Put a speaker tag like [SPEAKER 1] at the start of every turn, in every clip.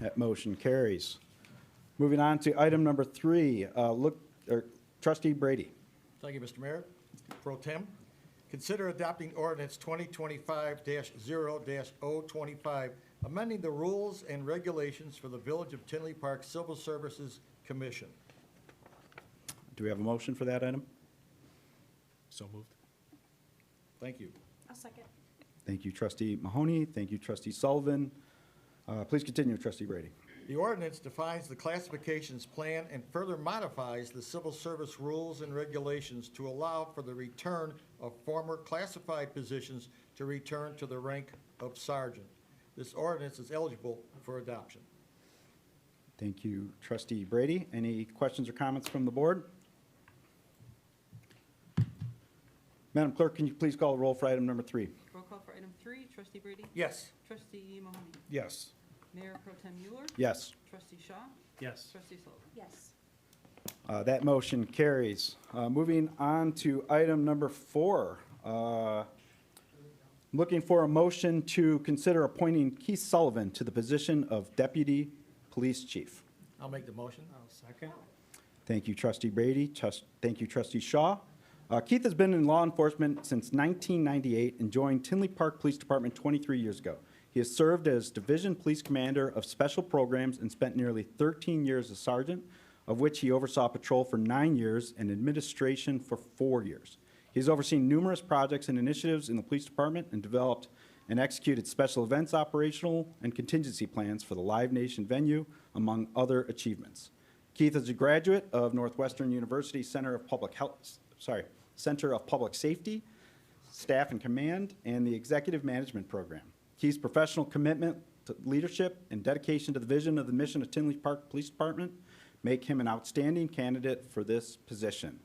[SPEAKER 1] That motion carries. Moving on to item number three, uh, look, or trustee Brady.
[SPEAKER 2] Thank you, Mr. Mayor. Pro Tem, consider adopting ordinance 2025-0-025, amending the rules and regulations for the Village of Tinley Park Civil Services Commission.
[SPEAKER 1] Do we have a motion for that item?
[SPEAKER 3] So moved.
[SPEAKER 2] Thank you.
[SPEAKER 4] I'll second.
[SPEAKER 1] Thank you, trustee Mahoney. Thank you, trustee Sullivan. Uh, Please continue, trustee Brady.
[SPEAKER 2] The ordinance defines the classifications plan and further modifies the civil service rules and regulations to allow for the return of former classified positions to return to the rank of sergeant. This ordinance is eligible for adoption.
[SPEAKER 1] Thank you, trustee Brady. Any questions or comments from the board? Madam Clerk, can you please call the roll for item number three?
[SPEAKER 5] Roll call for item three, trustee Brady?
[SPEAKER 2] Yes.
[SPEAKER 5] Trustee Mahoney?
[SPEAKER 3] Yes.
[SPEAKER 5] Mayor Pro Tem Mueller?
[SPEAKER 1] Yes.
[SPEAKER 5] Trustee Shaw?
[SPEAKER 3] Yes.
[SPEAKER 5] Trustee Sullivan?
[SPEAKER 4] Yes.
[SPEAKER 1] Uh, That motion carries. Uh, Moving on to item number four. uh, Looking for a motion to consider appointing Keith Sullivan to the position of Deputy Police Chief.
[SPEAKER 2] I'll make the motion.
[SPEAKER 3] I'll second.
[SPEAKER 1] Thank you, trustee Brady. Trust- Thank you, trustee Shaw. Uh, Keith has been in law enforcement since 1998 and joined Tinley Park Police Department 23 years ago. He has served as Division Police Commander of Special Programs and spent nearly 13 years as sergeant, of which he oversaw patrol for nine years and administration for four years. He has overseen numerous projects and initiatives in the police department and developed and executed special events operational and contingency plans for the Live Nation venue, among other achievements. Keith is a graduate of Northwestern University Center of Public Health, sorry, Center of Public Safety, Staff and Command, and the Executive Management Program. Keith's professional commitment to leadership and dedication to the vision of the mission of Tinley Park Police Department make him an outstanding candidate for this position.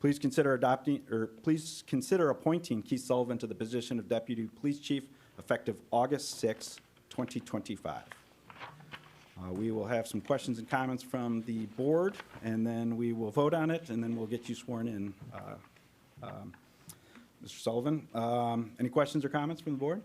[SPEAKER 1] Please consider adopting, or please consider appointing Keith Sullivan to the position of Deputy Police Chief effective August 6, 2025. Uh, We will have some questions and comments from the board, and then we will vote on it, and then we'll get you sworn in, uh, um, Mr. Sullivan. Um, Any questions or comments from the board?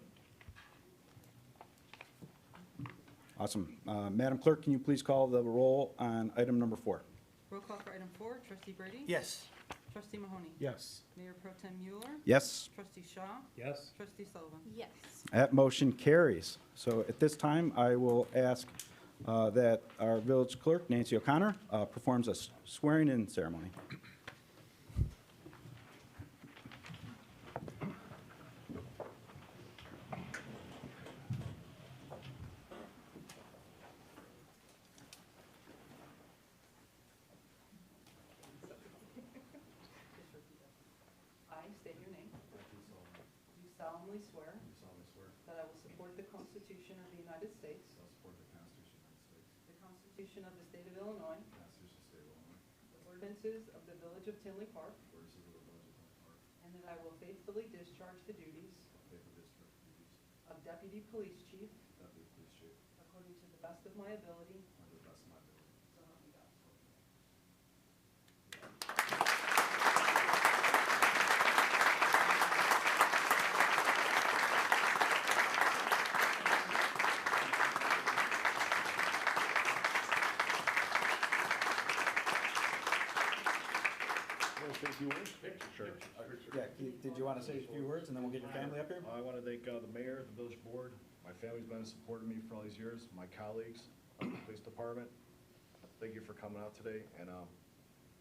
[SPEAKER 1] Awesome. Uh, Madam Clerk, can you please call the roll on item number four?
[SPEAKER 5] Roll call for item four, trustee Brady?
[SPEAKER 2] Yes.
[SPEAKER 5] Trustee Mahoney?
[SPEAKER 3] Yes.
[SPEAKER 5] Mayor Pro Tem Mueller?
[SPEAKER 1] Yes,
[SPEAKER 5] Trustee Shaw?
[SPEAKER 3] Yes.
[SPEAKER 5] Trustee Sullivan?
[SPEAKER 4] Yes.
[SPEAKER 1] that motion carries. So at this time, I will ask uh, that our village clerk, Nancy O'Connor, uh, performs a swearing-in ceremony.
[SPEAKER 5] I state your name. Do solemnly swear
[SPEAKER 6] solemnly swear that
[SPEAKER 5] that I will support the Constitution of the United States,
[SPEAKER 6] I will support the Constitution of the United States,
[SPEAKER 5] the Constitution of the State of Illinois,
[SPEAKER 6] the Constitution of the State of Illinois,
[SPEAKER 5] the ordinances of the Village of Tinley Park,
[SPEAKER 6] the ordinances of the Village of Hunter Park,
[SPEAKER 5] and that I will faithfully discharge the duties
[SPEAKER 6] and faithfully discharge the duties
[SPEAKER 5] of Deputy Police Chief
[SPEAKER 6] of Deputy Police Chief
[SPEAKER 5] according to the best of my ability,
[SPEAKER 6] under the best of my ability.
[SPEAKER 5] so help me God.
[SPEAKER 1] Yeah, Keith, did you want to say a few words, and then we'll get your family up here?
[SPEAKER 6] I want to thank uh, the mayor, the village board, my family's been supporting me for all these years, my colleagues, uh, the police department. Thank you for coming out today, and um,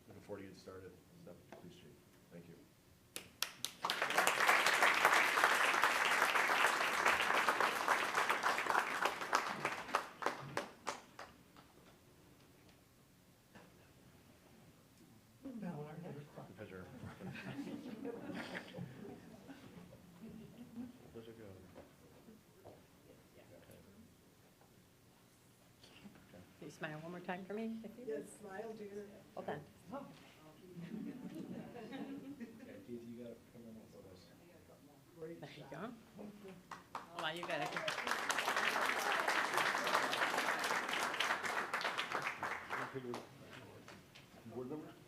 [SPEAKER 6] looking forward to getting started as Deputy Police Chief. Thank you. Pleasure.
[SPEAKER 7] Can you smile one more time for me? Yes, smile, dear. Hold on. There you go. Hold on, you got it.
[SPEAKER 6] Board members?